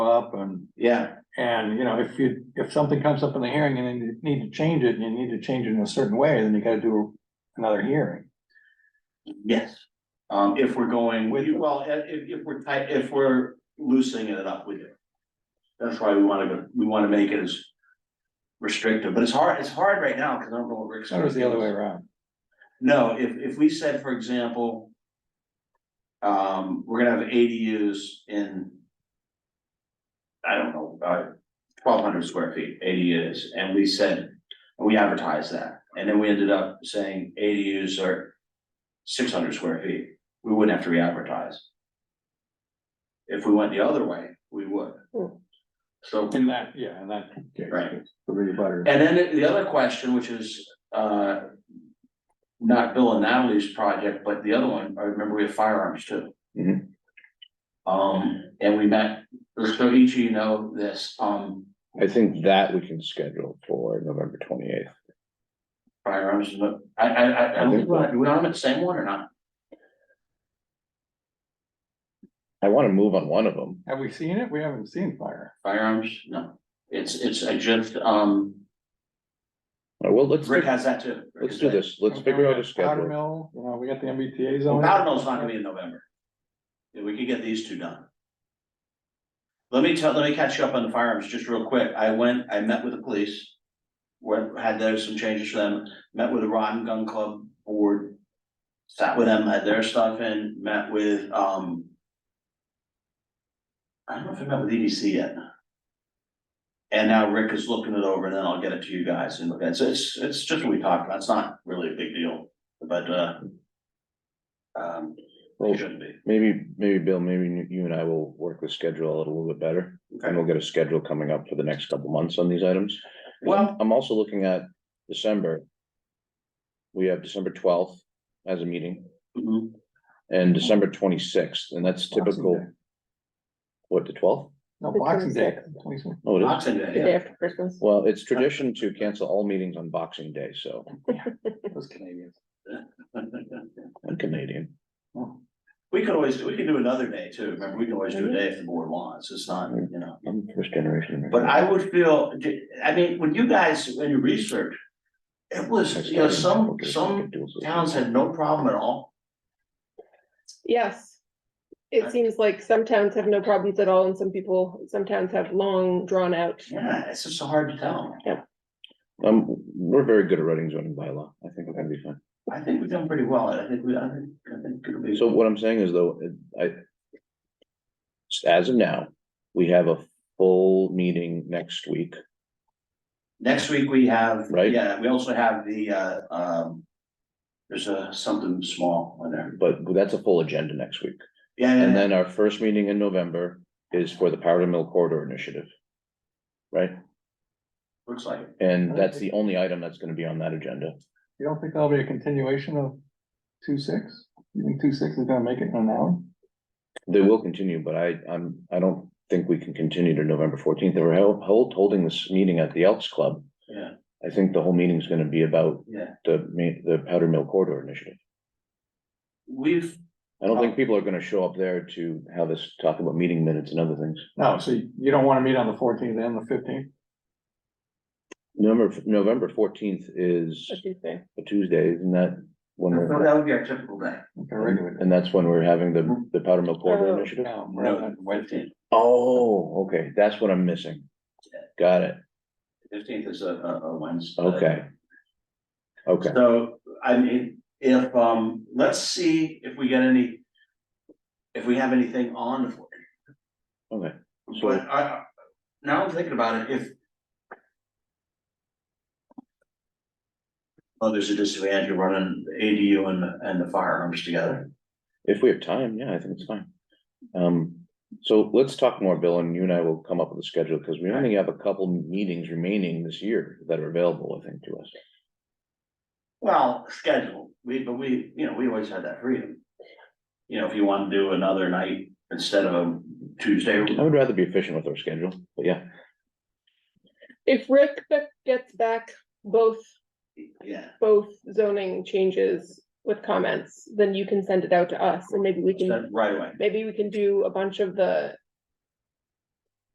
up and, yeah, and, you know, if you, if something comes up in the hearing and then you need to change it, and you need to change it in a certain way, then you gotta do another hearing. yes. Um, if we're going, With- well, if, if if we're tight, if we're loosening it up with it. That's why we wanna go, we wanna make it as restrictive, but it's hard, it's hard right now, cause I don't know what we're. So it's the other way around. No, if, if we said, for example. Um, we're gonna have ADUs in. I don't know, uh, twelve hundred square feet, ADUs, and we said, we advertised that, and then we ended up saying ADUs are. Six hundred square feet, we wouldn't have to re-advertise. If we went the other way, we would. Hmm. So. In that, yeah, in that. case, Right. The rebutter. And then the other question, which is, uh. Not Bill and Natalie's project, but the other one, I remember we have firearms too. Mhm. Mm-hmm. Um, and we met, so each of you know this, um, I think that we can schedule for November twenty eighth. firearms, but I, I, I, I don't think, we're- do we on the same one or not? I wanna move on one of them. Have we seen it? We haven't seen fire. Firearms, no, it's, it's, I just, um, Uh, Well, let's, Rick do- has that too. let's do this. Let's figure out a Powder schedule. mill, you know, we got the MBTA Well, zone. Powder Mill's not gonna be in November. Yeah, we could get these two done. Let me tell, let me catch you up on the firearms just real quick. I went, I met with the police. Went, had there some changes for them, met with the Rod and Gun Club Board. Sat with them, had their stuff in, met with, um. I don't know if I met with EDC yet. And now Rick is looking it over and then I'll get it to you guys and look at it. So It's, it's just what we talked about. It's not really a big deal, but, uh. Um, Well, it shouldn't be. maybe, maybe Bill, maybe you- you and I will work the schedule out a little bit better. And we'll get a schedule coming up for the next couple months on these items. Well, I'm also looking at December. We have December twelfth as a meeting Mm-hmm. mhm, and December twenty-sixth, and that's Boxing typical, Day. what, the twelfth? No, The Boxing Day. Twenty-six. Oh, it is. Boxing Day, The yeah. day after Christmas. Well, it's tradition to cancel all meetings on Boxing Day, so Those Canadians. I'm Canadian. We could always, we could do another day too, remember, we can always Mm-hmm. do a day if the board wants, it's not, you know. I'm first generation. But I would feel, I mean, when you guys, when you research, it was, you know, some, some towns had no problem at all. Yes. It seems like some towns have no problems at all and some people, some towns have long drawn out. Yeah, it's just so hard to tell, Um, we're very good at writing zoning bylaw. I think we're gonna be fine. I think we've done pretty well, I think we, I think, I think it'll be. So what I'm saying is though, I. As of now, we have a full meeting next week. Next week we have, Right. yeah, we also have the, uh, um. There's a, something small on there, But that's a full agenda next week. yeah, yeah, And yeah, then our first meeting in November is for the Powder Mill Corridor Initiative. Right? looks like it. And that's the only item that's gonna be on that agenda. You don't think that'll be a continuation of two-six? You think two-six is gonna make it in an hour? They will continue, but I, I'm, I don't think we can continue to November fourteenth. They were held, hold- holding this meeting at the Elks Club. Yeah. I think the whole meeting's gonna be about Yeah. the, ma- the Powder Mill Corridor Initiative. We've, I don't think people are gonna show up there to have us talk about meeting minutes and other things. No, so you you don't wanna meet on the fourteenth and the fifteenth? November, November fourteenth is a Tuesday. a Tuesday, isn't that when no, we're, that would be our typical day. Okay, regular. and that's when we're having the, the Powder Mill Oh. Corridor Initiative? No, we're not No, on fifteenth. Oh, okay, that's what I'm missing. Got it, Fifteenth is a, a, a Wednesday. okay. Okay, So, I mean, if, um, let's see if we get any. If we have anything on the fourteenth. okay, But I, I- now I'm thinking about it, if. Oh, there's a disadvantage of running the ADU and, the- and the firearms together. if we have time, yeah, I think it's fine. Um, so let's talk more, Bill, and you and I will come up with a schedule, because we only have a couple meetings remaining this year that are available, I think, to us. Well, schedule, we, but we, you know, we always had that freedom. You know, if you want to do another night instead of a Tuesday, I would rather be efficient with our schedule, but yeah, If Rick be- gets back both, yeah. both zoning changes with comments, then you can send it out to us and maybe we can, Right away. maybe we can do a bunch of the